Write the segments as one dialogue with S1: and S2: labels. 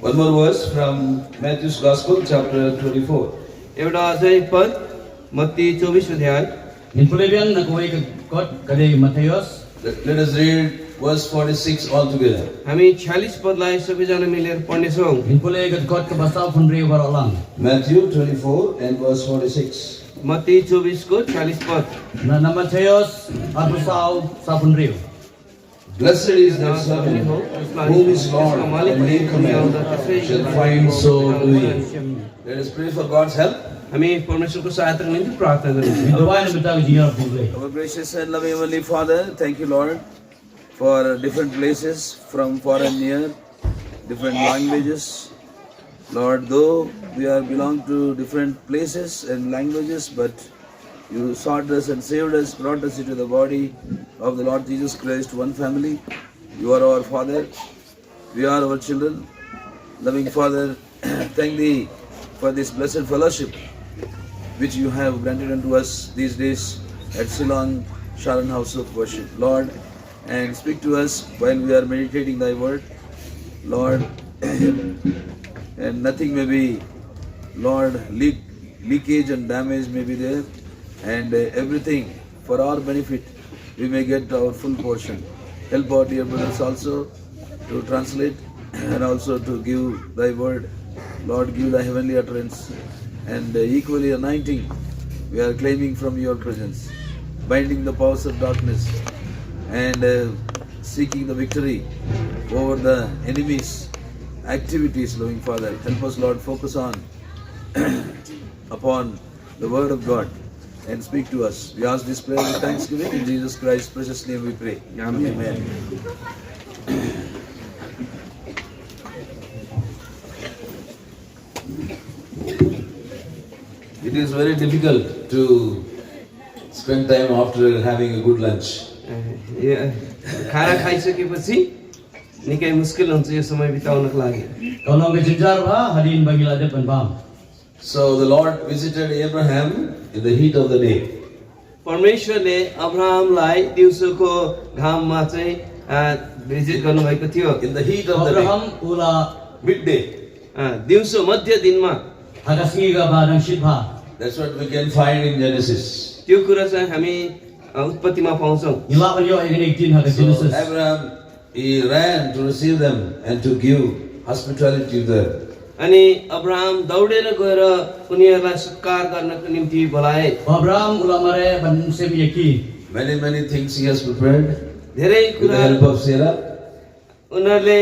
S1: One more verse from Matthew's Gospel, chapter 24.
S2: एउटा अझै पद मत्ती चौबिस अध्याय
S3: Din pulai biang nak kuai ke kot kali Matius.
S1: Let let us read verse 46 all together.
S2: हामी छ्यालिस पदलाई सबैजना मिलेर पढ्नेछौँ
S3: Din pulai ke kot ke basau fundri warolang.
S1: Matthew 24 and verse 46.
S2: मत्ती चौबिसको छ्यालिस पद
S3: Na na Matius abusau sa fundri.
S1: Blessed is that servant whom his Lord and he commands shall find so doing. Let us pray for God's help.
S2: हामी परमेश्वरको सहायताको निम्ति प्रार्थना गर्छौँ
S3: Doa ni betang jinyar fundri.
S1: Our gracious and loving Heavenly Father, thank you, Lord, for different places from far and near, different languages. Lord, though we are belong to different places and languages, but you sought us and saved us, brought us into the body of the Lord Jesus Christ, one family. You are our Father. We are our children. Loving Father, thank Thee for this blessed fellowship which you have granted unto us these days at Ceylon Sharon House of Worship. Lord, and speak to us while we are meditating thy word. Lord, and nothing may be, Lord, leak, leakage and damage may be there, and uh, everything for our benefit we may get our full portion. Help our dear brothers also to translate and also to give thy word. Lord, give thy heavenly utterance and uh, equally anointing we are claiming from your presence, binding the powers of darkness and uh, seeking the victory over the enemies activities, loving Father. Help us, Lord, focus on upon the Word of God and speak to us. We ask this prayer with thanksgiving in Jesus Christ's precious name. We pray.
S2: Amen.
S1: It is very difficult to spend time after having a good lunch.
S2: ए- खाना खाइसकेपछि निकै मुस्किल हुन्छ यो समय बिताउनको लागि
S3: Kalau ke jinjar ba ha, hadin bagi lah lade penbam.
S1: So the Lord visited Abraham in the heat of the day.
S2: परमेश्वरले अब्राहमलाई दिउँसोको घाममा चाहिँ आ, भिजिट गर्नुभएको थियो
S1: In the heat of the day,
S3: Abraham ula
S1: midday.
S2: आ, दिउँसो मध्य दिनमा
S3: hagasingi ga badang shibha.
S1: That's what we can find in Genesis.
S2: त्यो कुरा चाहिँ हामी आ, उत्पत्तिमा पाउँछौँ
S3: Ila beliau yang ini jin hagas
S1: So
S3: Genesis.
S1: Abraham he ran to receive them and to give hospitality to them.
S2: अनि Abraham दौडेर गएर उनीहरूलाई सत्कार गर्नको निम्ति बोलाए
S3: Abraham ula mare ban sem yaki.
S1: Many, many things he has prepared
S2: धेरै
S1: with the
S2: कुरा
S1: help of Sarah.
S2: उनीहरूले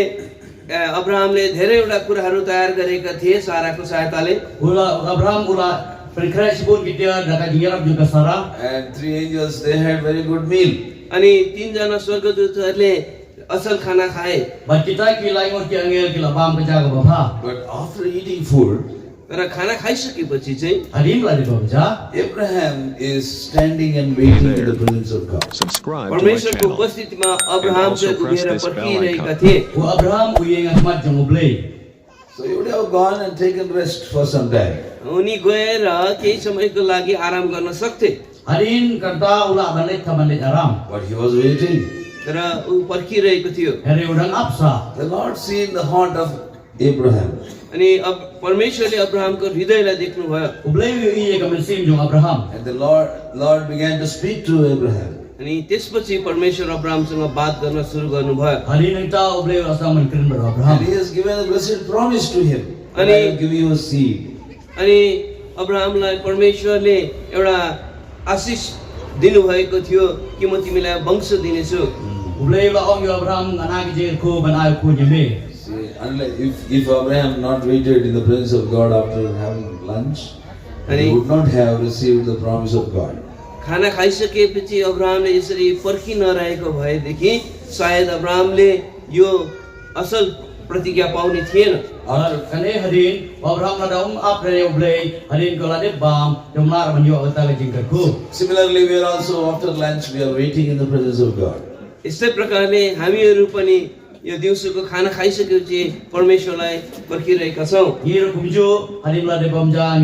S2: ए, अब्राहमले धेरैवटा कुराहरू तयार गरेका थिए साराको सहायताले
S3: Ula Abraham ula perkara sebut kita dakat jinjar juga Sarah.
S1: And three angels, they had very good meal.
S2: अनि तिनजना स्वर्गदूतहरूले असल खाना खाए
S3: Bat kita ki laingur ki angel ki labam keja ke ha. bapa.
S1: But after eating food,
S2: तर खाना खाइसकेपछि चाहिँ
S3: Hadim lah di bapa.
S1: Abraham is standing and waiting in the presence of God.
S4: Subscribe to my
S2: परमेश्वरको
S4: channel.
S2: उपस्थितिमा Abraham
S4: And also
S2: चाहिँ
S4: press
S2: उभिएर
S4: this bell
S2: पर्खिरहेका
S4: icon.
S2: थिए
S3: U Abraham u yang asmat jeng ublei.
S1: So he would have gone and taken rest for some time.
S2: उनी गएर केही समयको लागि आराम गर्न सक्थे
S3: Hadim kerta ula balik taman di aram.
S1: But he was waiting.
S2: तर ऊ पर्खिरहेको थियो
S3: Hari udang apsa.
S1: The Lord seen the heart of Abraham.
S2: अनि अब परमेश्वरले अब्राहमको हृदयलाई देख्नुभयो
S3: Ublei u iya kemensim jeng Abraham.
S1: And the Lord, Lord began to speak to Abraham.
S2: अनि त्यसपछि परमेश्वर अब्राहमसँग बात गर्न सुरु गर्नुभयो
S3: Hadim kita ublei rasa mengkirim ber Abraham.
S1: And he has given a blessed promise to him. And I will give you a seed.
S2: अनि अब्राहमलाई परमेश्वरले एउटा आशिष दिनुभएको थियो कि म तिमीलाई वंश दिनेछु
S3: Ublei ula ong yu Abraham anak kecil ku benar ku jeme.
S1: See, unlike if, if Abraham not waited in the presence of God after having lunch, he would not have received the promise of God.
S2: खाना खाइसकेपछि अब्राहमले यसरी पर्खिनरहेको भएदेखि सायद अब्राहमले यो असल प्रतिज्ञा पाउने थिएन
S3: Al kane hadim eh, Abraham ladang ap dari ublei hadim kalau dia bam jumlah menyu kita kecil ku.
S1: Similarly, we are also after lunch, we are waiting in the presence of God.
S2: यस्तै प्रकारले हामीहरू पनि यो दिउँसोको खाना खाइसकेपछि परमेश्वरलाई पर्खिरहेका छौँ
S3: Ngiru kumju hadim ladang bam jang